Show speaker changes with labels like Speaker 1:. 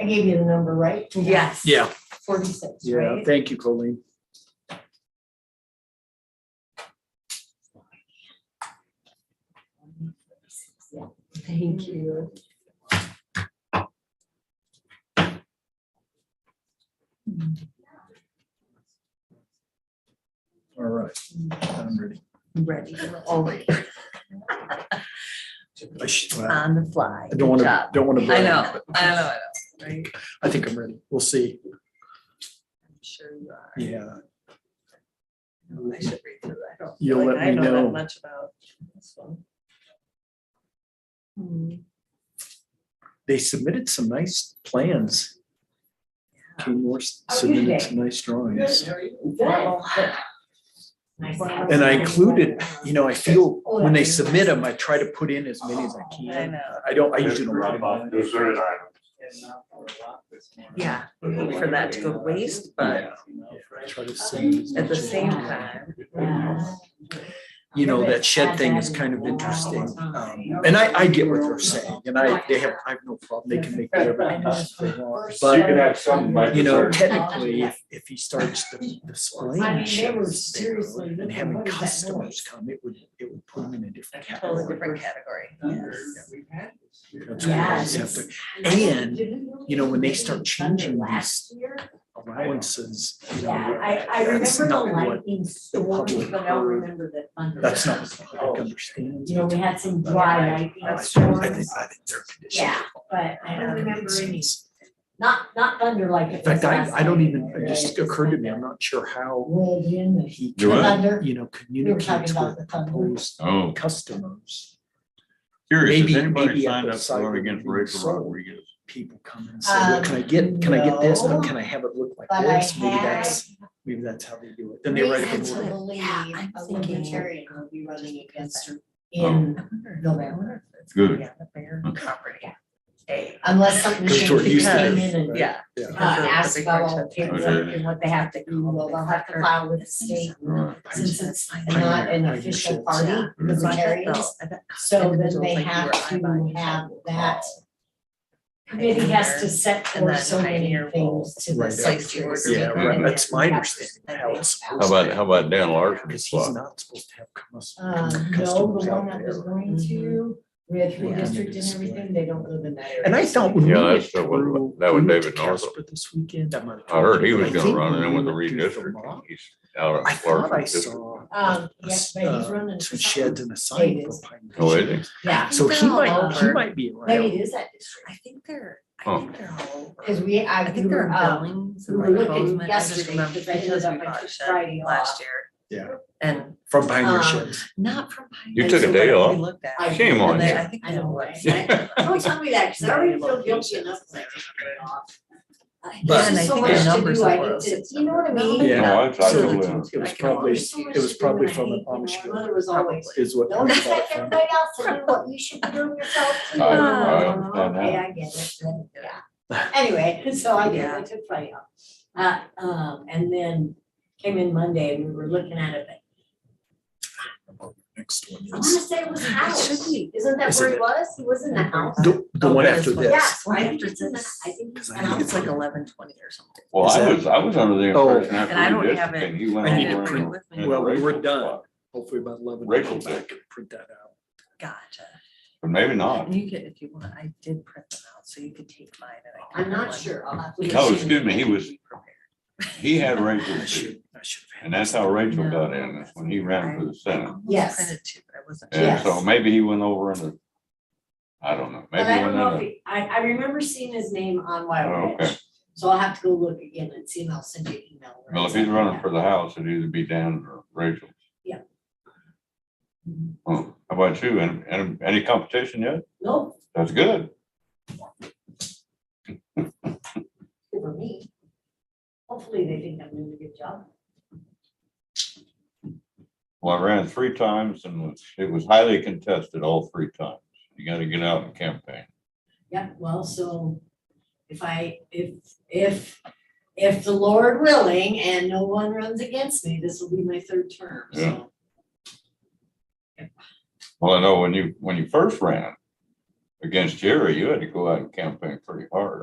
Speaker 1: I gave you the number, right?
Speaker 2: Yes.
Speaker 3: Yeah,
Speaker 1: Forty-six,
Speaker 3: yeah,
Speaker 1: right?
Speaker 3: thank you, Colleen.
Speaker 2: Thank you.
Speaker 3: All right, I'm ready.
Speaker 2: Ready, we're already
Speaker 3: I should- I
Speaker 2: on the fly.
Speaker 3: don't want
Speaker 2: Uh, Good
Speaker 3: to,
Speaker 2: job.
Speaker 3: don't want to.
Speaker 2: I know, I know, I know. right?
Speaker 3: I think I'm ready. We'll see.
Speaker 2: I'm sure you are.
Speaker 3: Yeah,
Speaker 2: I should read through that. I don't feel
Speaker 3: You'll
Speaker 2: like
Speaker 3: let
Speaker 2: I
Speaker 3: me
Speaker 2: know
Speaker 3: know.
Speaker 2: that much about this one. Hmm,
Speaker 3: they submitted some nice plans. Two more s-
Speaker 1: How
Speaker 2: Oh,
Speaker 1: are you
Speaker 3: submitted
Speaker 1: today?
Speaker 3: some nice drawings.
Speaker 2: well,
Speaker 3: And I included, you know, I feel when they submit them, I try to put in as many as I
Speaker 2: Oh, I
Speaker 3: can.
Speaker 2: know,
Speaker 3: I don't, I usually don't. write about it.
Speaker 2: yeah, for that to go waste, but
Speaker 3: I Try to send as
Speaker 2: at the
Speaker 3: much as I
Speaker 2: same
Speaker 3: can.
Speaker 2: time,
Speaker 3: you know, that shed thing is kind of interesting. Um, And I, I get what they're saying, and I, they have, I have no problem, they can make whatever decisions they want.
Speaker 4: You
Speaker 3: But,
Speaker 4: can have some like.
Speaker 3: you know, technically, if, if he starts the- displaying sheds there
Speaker 1: seriously
Speaker 3: and
Speaker 1: looking,
Speaker 3: having
Speaker 1: what is that
Speaker 3: customers
Speaker 1: noise?
Speaker 3: come, it would, it would put him in a different
Speaker 2: totally
Speaker 3: category.
Speaker 2: different category.
Speaker 3: That's what I always have to- And, you know, when they start changing these allowances, you know,
Speaker 1: I, I
Speaker 3: That's
Speaker 1: remember the
Speaker 3: not what
Speaker 1: lightning storm,
Speaker 3: public
Speaker 1: but I don't
Speaker 3: heard.
Speaker 1: remember the thunder.
Speaker 3: that's not what the public understands.
Speaker 1: You know, we had some dry
Speaker 3: I
Speaker 1: lightning
Speaker 3: like that. I think,
Speaker 1: storms,
Speaker 3: I think their condition.
Speaker 1: yeah, but I don't remember any,
Speaker 3: sense.
Speaker 1: not, not thunder like it
Speaker 3: In
Speaker 1: was
Speaker 3: fact, I,
Speaker 1: last
Speaker 3: I don't
Speaker 1: night.
Speaker 3: even, it just occurred to me, I'm not sure how
Speaker 1: Rolled in, the
Speaker 3: he,
Speaker 5: Do
Speaker 3: can,
Speaker 5: what?
Speaker 1: thunder,
Speaker 3: you know,
Speaker 1: we were talking
Speaker 3: communicates
Speaker 1: about
Speaker 3: with
Speaker 1: the thunder.
Speaker 3: proposed
Speaker 5: Oh,
Speaker 3: customers.
Speaker 5: curious,
Speaker 3: Maybe-
Speaker 5: has anybody
Speaker 3: maybe at
Speaker 5: signed
Speaker 3: the
Speaker 5: up
Speaker 3: site
Speaker 5: for
Speaker 3: where
Speaker 5: against
Speaker 3: we
Speaker 5: Rachel
Speaker 3: sold.
Speaker 5: Rodriguez?
Speaker 3: People come and say, well, can I get, can I get this? Now, can I have it look like
Speaker 1: But I
Speaker 3: this? Maybe
Speaker 1: had-
Speaker 3: that's, maybe that's how they do it. Then they write up an
Speaker 1: Reason to
Speaker 3: order.
Speaker 1: believe
Speaker 2: Yeah, I'm
Speaker 1: a
Speaker 2: thinking-
Speaker 1: libertarian will be running against her
Speaker 5: Oh.
Speaker 1: in
Speaker 2: I wonder-
Speaker 1: November.
Speaker 2: I wonder if it's
Speaker 5: Good.
Speaker 2: gonna be on the Bear
Speaker 5: Okay.
Speaker 2: property. Hey,
Speaker 1: unless something
Speaker 3: Because we're
Speaker 1: changed,
Speaker 3: used to
Speaker 1: came
Speaker 3: this,
Speaker 1: in and
Speaker 3: right?
Speaker 2: yeah.
Speaker 3: Yeah.
Speaker 1: uh,
Speaker 2: because of the
Speaker 1: asked
Speaker 2: big
Speaker 1: about
Speaker 2: red
Speaker 1: all the
Speaker 2: tent.
Speaker 1: paperwork and what they have to do, well, they'll have to file with the state
Speaker 5: Right.
Speaker 1: since it's not an official party,
Speaker 2: Because I bet
Speaker 1: libertarians.
Speaker 2: though- I bet
Speaker 1: So then
Speaker 2: individuals
Speaker 1: they
Speaker 2: like you
Speaker 1: have
Speaker 2: or I buy
Speaker 1: to
Speaker 2: each
Speaker 1: have
Speaker 2: other.
Speaker 1: that committee has to set
Speaker 2: And
Speaker 1: forth
Speaker 2: then
Speaker 1: so many
Speaker 2: pioneer will
Speaker 1: things to
Speaker 3: Right.
Speaker 1: the
Speaker 2: Place the
Speaker 1: secretary.
Speaker 2: order.
Speaker 3: Yeah, right,
Speaker 5: Mhm.
Speaker 3: that's my understanding of how it's supposed
Speaker 5: How
Speaker 3: to
Speaker 5: about,
Speaker 3: be.
Speaker 5: how about Dan Larson
Speaker 3: Because he's
Speaker 5: spot?
Speaker 3: not supposed to have cus-
Speaker 1: Uh,
Speaker 3: customers
Speaker 1: no, the one
Speaker 3: out
Speaker 1: I was
Speaker 3: there.
Speaker 1: going to, we had three
Speaker 3: Yeah.
Speaker 1: districts and everything, they don't live in that area.
Speaker 3: And I thought when we
Speaker 5: Yeah,
Speaker 3: went
Speaker 5: that's the one-
Speaker 3: through.
Speaker 5: that was
Speaker 3: we went to
Speaker 5: David Northrup.
Speaker 3: Casper This weekend. I might have
Speaker 5: I heard
Speaker 3: told
Speaker 5: he
Speaker 3: you.
Speaker 5: was
Speaker 3: I
Speaker 5: gonna
Speaker 3: think
Speaker 5: run
Speaker 3: when
Speaker 5: in
Speaker 3: we
Speaker 5: with the
Speaker 3: went through
Speaker 5: redistricting.
Speaker 3: Vermont,
Speaker 5: He's out
Speaker 3: I
Speaker 5: of
Speaker 3: thought I
Speaker 5: Larson district.
Speaker 3: saw
Speaker 1: Um, yeah, but he's
Speaker 3: Uh,
Speaker 1: running. for
Speaker 3: some
Speaker 1: something.
Speaker 3: sheds and a sign
Speaker 1: It
Speaker 3: for
Speaker 1: is.
Speaker 3: Pine
Speaker 5: Oh, is
Speaker 3: Ridge.
Speaker 1: Yeah,
Speaker 3: So he
Speaker 2: They're all
Speaker 3: might, he
Speaker 2: over.
Speaker 3: might be around.
Speaker 1: maybe it is that district,
Speaker 2: I think they're, I
Speaker 5: Oh.
Speaker 2: think they're all over.
Speaker 1: because we, I,
Speaker 2: I
Speaker 1: we
Speaker 2: think they're
Speaker 1: were,
Speaker 2: in
Speaker 1: um,
Speaker 2: Billings
Speaker 1: we
Speaker 2: and
Speaker 1: were
Speaker 2: like
Speaker 1: looking
Speaker 2: Bozeman. I just
Speaker 1: yesterday
Speaker 2: remember
Speaker 1: because I
Speaker 2: because
Speaker 1: ended
Speaker 2: we
Speaker 1: up
Speaker 2: bought
Speaker 1: on
Speaker 2: shed
Speaker 1: Friday
Speaker 2: Last
Speaker 1: off.
Speaker 2: year
Speaker 3: Yeah,
Speaker 2: and
Speaker 3: from Pioneer
Speaker 1: Um,
Speaker 3: Sheds.
Speaker 2: not from. Pioneer,
Speaker 5: You took a
Speaker 2: so
Speaker 5: day
Speaker 2: what
Speaker 5: off.
Speaker 2: We looked at.
Speaker 1: I-
Speaker 2: it,
Speaker 5: Shame
Speaker 2: and
Speaker 5: on
Speaker 2: they-
Speaker 5: you.
Speaker 2: I think
Speaker 1: I
Speaker 2: they
Speaker 1: know,
Speaker 2: were
Speaker 1: right?
Speaker 2: upset.
Speaker 1: Don't tell me that, because I already feel guilty enough. when I turn it off.
Speaker 3: But-
Speaker 1: There's
Speaker 3: And I
Speaker 1: so
Speaker 3: think
Speaker 1: much
Speaker 3: the
Speaker 1: to
Speaker 2: numbers
Speaker 1: do,
Speaker 2: are
Speaker 1: I
Speaker 2: low,
Speaker 1: need to-
Speaker 2: six
Speaker 1: You know what I
Speaker 2: numbers.
Speaker 1: mean?
Speaker 3: Yeah.
Speaker 5: No, I, I
Speaker 3: So
Speaker 5: totally
Speaker 3: it's-
Speaker 5: understand.
Speaker 3: It was
Speaker 2: I can
Speaker 3: probably,
Speaker 1: There's so much
Speaker 3: it was
Speaker 1: to do,
Speaker 3: probably
Speaker 1: and I
Speaker 3: from an
Speaker 1: hate, you know,
Speaker 3: Amish
Speaker 1: My
Speaker 3: group
Speaker 1: mother was always,
Speaker 3: is what.
Speaker 1: don't
Speaker 3: I thought
Speaker 1: expect
Speaker 3: from.
Speaker 1: everybody else to do what you should be doing yourself. too."
Speaker 5: I-
Speaker 2: I
Speaker 5: understand that.
Speaker 1: Okay, I get it, then, yeah. Anyway, so I did, I took Friday off. Uh, um, and then came in Monday and we were looking at it, but
Speaker 3: Next one
Speaker 1: I wanna
Speaker 3: is,
Speaker 1: say it was a
Speaker 2: It should
Speaker 1: house.
Speaker 2: be.
Speaker 1: Isn't that
Speaker 3: Isn't
Speaker 1: where he
Speaker 3: it?
Speaker 1: was? He was in the house?
Speaker 3: the, the
Speaker 2: Oh,
Speaker 3: one
Speaker 2: it is
Speaker 3: after
Speaker 2: one.
Speaker 3: this.
Speaker 1: Yes, I
Speaker 2: Right
Speaker 1: think
Speaker 2: after
Speaker 1: he's in the,
Speaker 2: this.
Speaker 1: I think he's.
Speaker 3: Because
Speaker 1: in
Speaker 3: I
Speaker 1: the
Speaker 3: need
Speaker 2: And
Speaker 3: to
Speaker 1: house.
Speaker 2: it's like eleven twenty or something.
Speaker 5: Well,
Speaker 3: Is
Speaker 5: I
Speaker 3: that-
Speaker 5: was, I was under the
Speaker 3: Oh.
Speaker 5: impression after
Speaker 2: And I don't have it.
Speaker 5: redistricting, he went
Speaker 3: I
Speaker 5: over
Speaker 3: need to
Speaker 5: and
Speaker 3: print-
Speaker 5: went
Speaker 2: well,
Speaker 5: into
Speaker 3: we were
Speaker 5: Rachel's
Speaker 3: done.
Speaker 5: spot.
Speaker 3: Hopefully by eleven.
Speaker 5: Rachel
Speaker 3: I
Speaker 5: did.
Speaker 3: can print that out.
Speaker 2: Gotcha.
Speaker 5: But maybe not.
Speaker 2: You could, if you want, I did print them out, so you could take mine and I.
Speaker 1: I'm not sure. I'll have to.
Speaker 5: No, Oh, excuse me, he was-
Speaker 2: Prepared.
Speaker 5: He had
Speaker 3: I
Speaker 5: Rachel's seat,
Speaker 3: should, I should have. had
Speaker 5: and that's how Rachel
Speaker 2: No,
Speaker 5: got in, is
Speaker 2: that's
Speaker 5: when he
Speaker 2: okay.
Speaker 5: ran for the
Speaker 2: I
Speaker 5: Senate.
Speaker 2: almost
Speaker 1: Yes.
Speaker 2: Printed two, but I wasn't.
Speaker 5: And
Speaker 1: Yes.
Speaker 5: so maybe he went over in the, I don't know,
Speaker 1: But
Speaker 5: maybe
Speaker 1: I
Speaker 5: he
Speaker 1: don't
Speaker 5: went
Speaker 1: know if
Speaker 5: in
Speaker 1: he- I, I remember seeing his name on
Speaker 5: Oh,
Speaker 1: Wild
Speaker 5: okay.
Speaker 1: Ridge, so I'll have to go look again and see, and I'll send you an email.
Speaker 5: the, well, if he's running for the House, it'd either be Dan or Rachel.
Speaker 1: Yeah.
Speaker 5: Oh, how about you? And, and any competition yet?
Speaker 1: Nope,
Speaker 5: That's good.
Speaker 1: for me. Hopefully they think I'm doing a good job.
Speaker 5: Well, I ran three times and it was highly contested all three times. You gotta get out and campaign.
Speaker 1: Yeah, well, so if I, if, if, if the Lord willing and no one runs against me, this will be my third term, so.
Speaker 5: Well, I know when you, when you first ran against Jerry, you had to go out and campaign pretty hard.